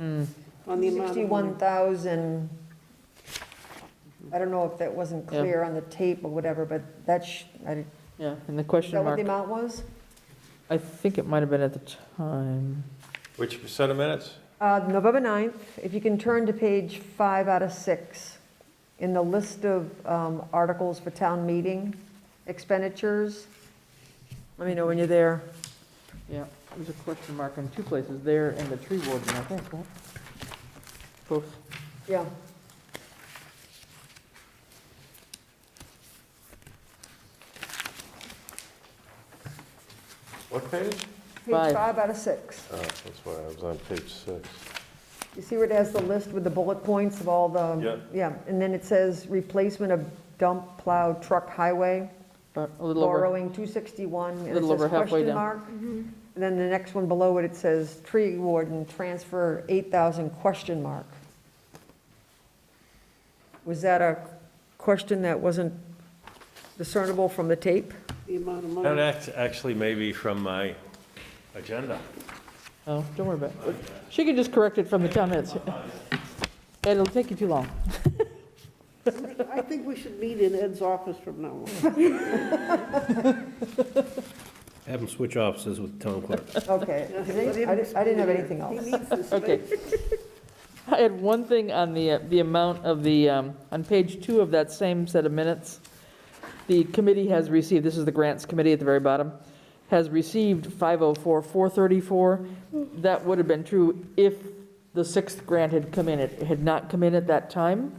Mm. on the amount of money. 61,000, I don't know if that wasn't Yeah. clear on the tape or whatever, but that's, I, Yeah, and the is question that what mark, the amount was? I think it might have been at the time. Which set of minutes? Uh, November 9th, if you can turn to page five out of six, in the list of um, articles for town meeting expenditures, let me know when you're there. Yeah, there's a question mark in two places, there and the tree warden, I think, right? Both. Yeah. What page? Page Five. five out of six. Oh, that's why I was on page six. You see where it has the list with the bullet points of all the? Yeah. Yeah, and then it says replacement of dump plow truck highway. But a little over, borrowing 261, and it Little says over halfway question down. mark. And then the next one below it, it says tree warden, transfer 8,000, question mark. Was that a question that wasn't discernible from the tape? The amount of That money. act- actually may be from my agenda. oh, don't worry about it. She can just correct it from the town minutes. It'll take you too long. I think we should meet in Ed's office from now on. Have them switch offices with the town clerk. Okay. I didn't I didn't have anything else. He needs the space. Okay. I had one thing on the, uh, the amount of the, um, on page two of that same set of minutes. The committee has received, this is the grants committee at the very bottom, has received 504,434. That would have been true if the sixth grant had come in. It had not come in at that time.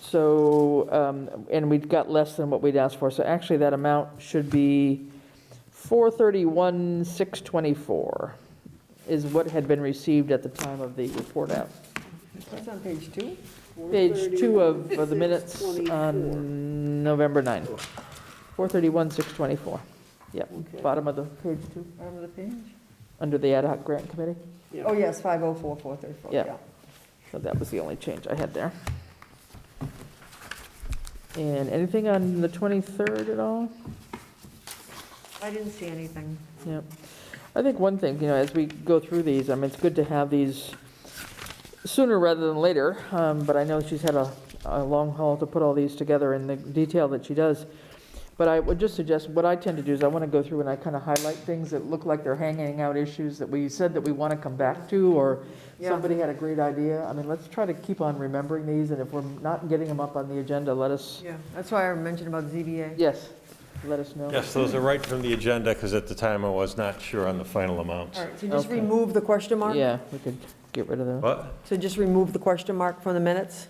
So, um, and we'd got less than what we'd asked for. So actually, that amount should be 431,624 is what had been received at the time of the report out. That's on page two? Page two of of the minutes 431, on November 9. 431, 624. Yep, Okay. bottom of the page two, Bottom of the page? under the ad hoc grant committee. Oh, yes, 504,434, Yeah. yeah. So that was the only change I had there. And anything on the 23rd at all? I didn't see anything. Yep. I think one thing, you know, as we go through these, I mean, it's good to have these sooner rather than later, um, but I know she's had a, a long haul to put all these together in the detail that she does. But I would just suggest, what I tend to do is I want to go through and I kind of highlight things that look like they're hanging out issues that we said that we want to come back to, or Yeah. somebody had a great idea. I mean, let's try to keep on remembering these, and if we're not getting them up on the agenda, let us, Yeah, that's why I mentioned about ZBA. yes, let us know. Yes, those are right from the agenda, because at the time I was not sure on the final amounts. All right, so just Okay. remove the question mark? Yeah, we could get rid of those. But, So just remove the question mark from the minutes?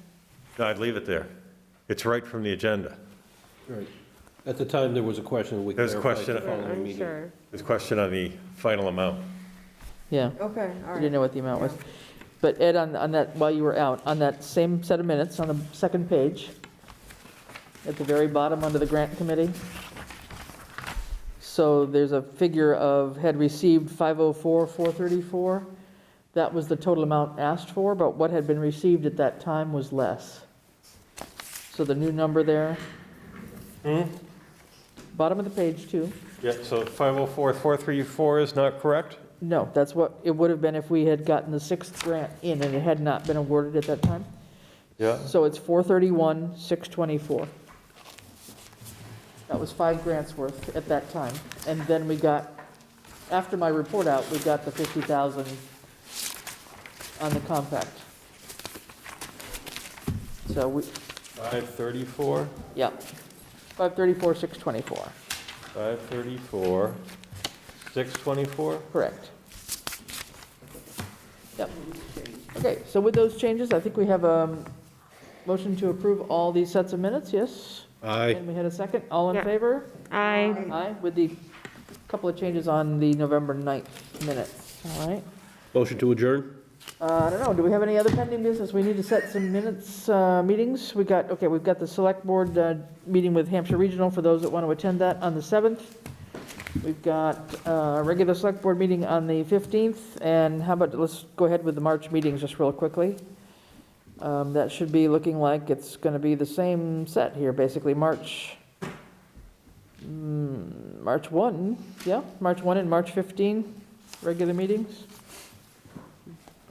no, I'd leave it there. It's right from the agenda. Right. At the time, there was a question we There's a clarified the question. following meeting. There's a question on the final amount. Yeah. Okay, all I right. didn't know what the amount was. But Ed, on, on that, while you were out, on that same set of minutes, on the second page, at the very bottom, under the grant committee, so there's a figure of, had received 504, 434. That was the total amount asked for, but what had been received at that time was less. So the new number there, bottom of the page, too. Yeah, so 504, 434 is not correct? No, that's what it would have been if we had gotten the sixth grant in and it had not been awarded at that time. Yeah. So it's 431, 624. That was five grants worth at that time. And then we got, after my report out, we got the 50,000 on the compact. So we, 534, yeah, 534, 624, 534, 624? correct. Yep. Okay, so with those changes, I think we have a motion to approve all these sets of minutes, yes? Aye. And we had a second, all in Yeah. favor? Aye. Aye, with the couple of changes on the November 9th minutes, all right? Motion to adjourn? Uh, I don't know, do we have any other pending business? We need to set some minutes, uh, meetings. We got, okay, we've got the Select Board uh, meeting with Hampshire Regional for those that want to attend that on the 7th. We've got uh, a regular Select Board meeting on the 15th, and how about, let's go ahead with the March meetings just real quickly. Um, That should be looking like it's going to be the same set here, basically, March, mm, March 1, yeah, March 1 and March 15, regular meetings.